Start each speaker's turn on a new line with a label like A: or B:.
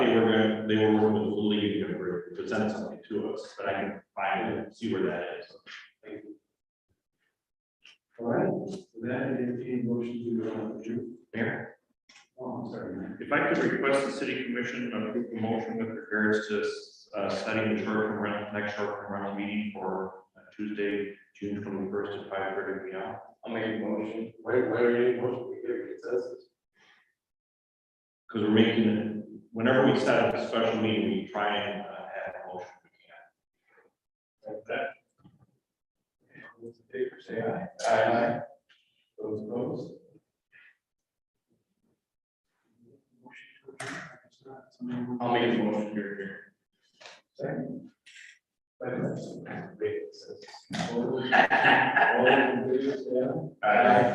A: they were working with the Little League to pre- present something to us, but I can find it, see where that is.
B: All right, so that is a motion to uh, adjourn.
A: Mayor,
B: Oh, I'm sorry. Matt.
A: if I could request the city commission to approve a motion with regards to, uh, setting the short-term rental, next short-term rental meeting for uh, Tuesday, June twenty-first at five thirty P M.
C: I'll make a motion.
D: Why, why are you emotional? We get a consensus.
A: Because we're making, it whenever we set up a special meeting, we try and uh, have a motion.
D: Like that.
B: Those in favor, say aye.
D: Aye.
B: Those opposed? Motion to adjourn, I guess not. Somebody who-
C: I'll make a motion here, here.
B: Second. Second. Wait, it says- All those in favor, say aye.
D: Aye.